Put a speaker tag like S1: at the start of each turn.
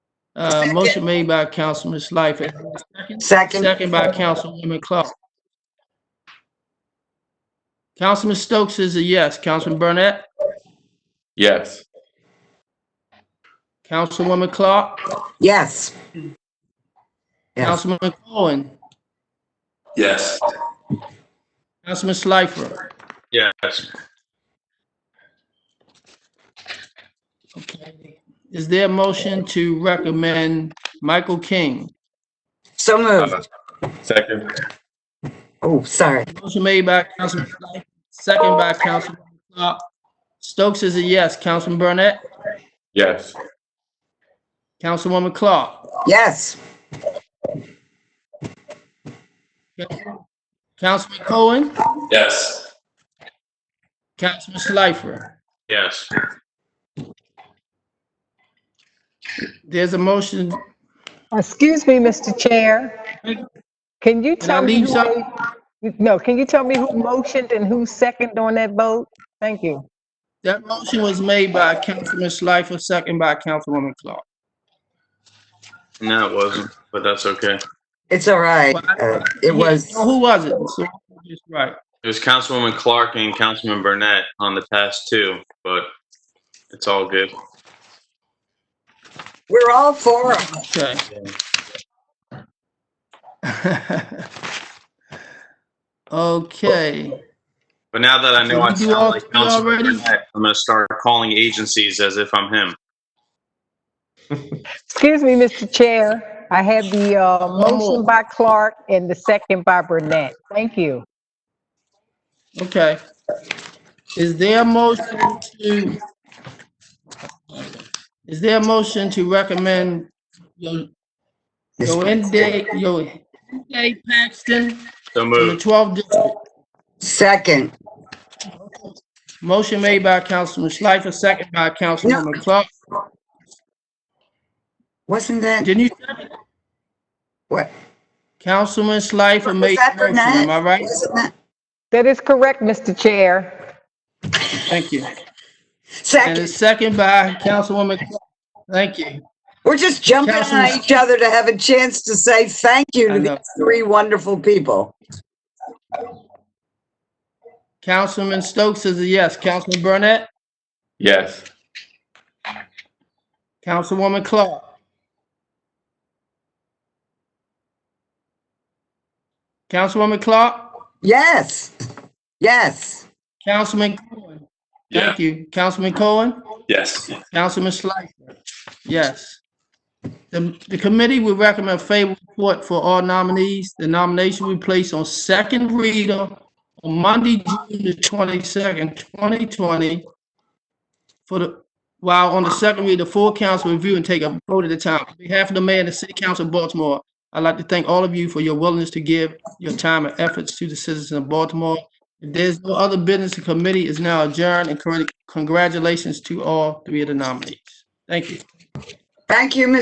S1: Uh, motion made by Councilman Schleifer,
S2: Second.
S1: second by Councilwoman Clark. Councilman Stokes is a yes. Councilman Burnett?
S3: Yes.
S1: Councilwoman Clark?
S2: Yes. Yes.
S1: Councilman Cohen?
S3: Yes.
S1: Councilman Schleifer?
S3: Yes.
S1: Okay. Is there a motion to recommend Michael King?
S2: So moved.
S1: Uh-huh.
S3: Second.
S2: Oh, sorry.
S1: Motion made by Councilman Schleifer, second by Councilman Clark. Stokes is a yes. Councilman Burnett?
S3: Yes.
S1: Councilwoman Clark?
S2: Yes.
S1: Councilman Cohen?
S3: Yes.
S1: Councilman Schleifer?
S3: Yes.
S1: There's a motion,
S4: Excuse me, Mr. Chair. Can you
S1: I
S4: tell me?
S1: leave
S4: who
S1: some-
S4: made- No, can you tell me who motioned and who seconded on that vote? Thank you.
S1: that motion was made by Councilman Schleifer, second by Councilwoman Clark.
S5: No, it wasn't, but that's okay.
S2: It's all right. Uh, It was,
S1: Who was it? So, just Right.
S5: It was Councilwoman Clark and Councilman Burnett on the task too, but it's all good.
S2: we're all for 'em.
S1: Okay. Okay,
S5: But now that I know I
S1: Did you
S5: sound
S1: all
S5: like
S1: quit
S5: Councilman
S1: already?
S5: Burnett, I'm gonna start calling agencies as if I'm him.
S4: Excuse me, Mr. Chair. I had the uh,
S1: One more.
S4: motion by Clark and the second by Burnett. Thank you.
S1: okay. Is there a motion to, is there a motion to recommend Yo- Yoende, Yoende Paxton
S5: So
S1: from the
S5: moved.
S1: 12th District?
S2: Second.
S1: Motion made by Councilman Schleifer, second by Councilwoman Clark.
S2: Wasn't that,
S1: Didn't you, second it?
S2: what?
S1: Councilman Schleifer
S2: Was
S1: made
S2: that
S1: the motion, am I
S2: Burnett?
S1: right?
S2: Wasn't that-
S4: That is correct, Mr. Chair.
S1: Thank you. And
S2: Second.
S1: it's second by Councilwoman Clark. Thank you.
S2: We're just jumping on
S1: Councilman-
S2: each other to have a chance to say thank you
S1: I
S2: to
S1: know.
S2: these three wonderful people.
S1: Councilman Stokes is a yes. Councilman Burnett?
S3: Yes.
S1: Councilwoman Clark? Councilwoman Clark?
S2: Yes. Yes.
S1: Councilman Cohen?
S3: Yeah.
S1: Thank you. Councilman Cohen?
S3: Yes.
S1: Councilman Schleifer, yes. The, the committee will recommend favorable report for all nominees. The nomination will place on second reader on Monday, June the twenty-second, twenty twenty. For the, while on the second reader, full council review and take a vote at a time. On behalf of the mayor and the city council of Baltimore, I'd like to thank all of you for your willingness to give your time and efforts to the citizens of Baltimore. If there's no other business, the committee is now adjourned and congratulations to all three of the nominees. Thank you.
S2: Thank you, Mr.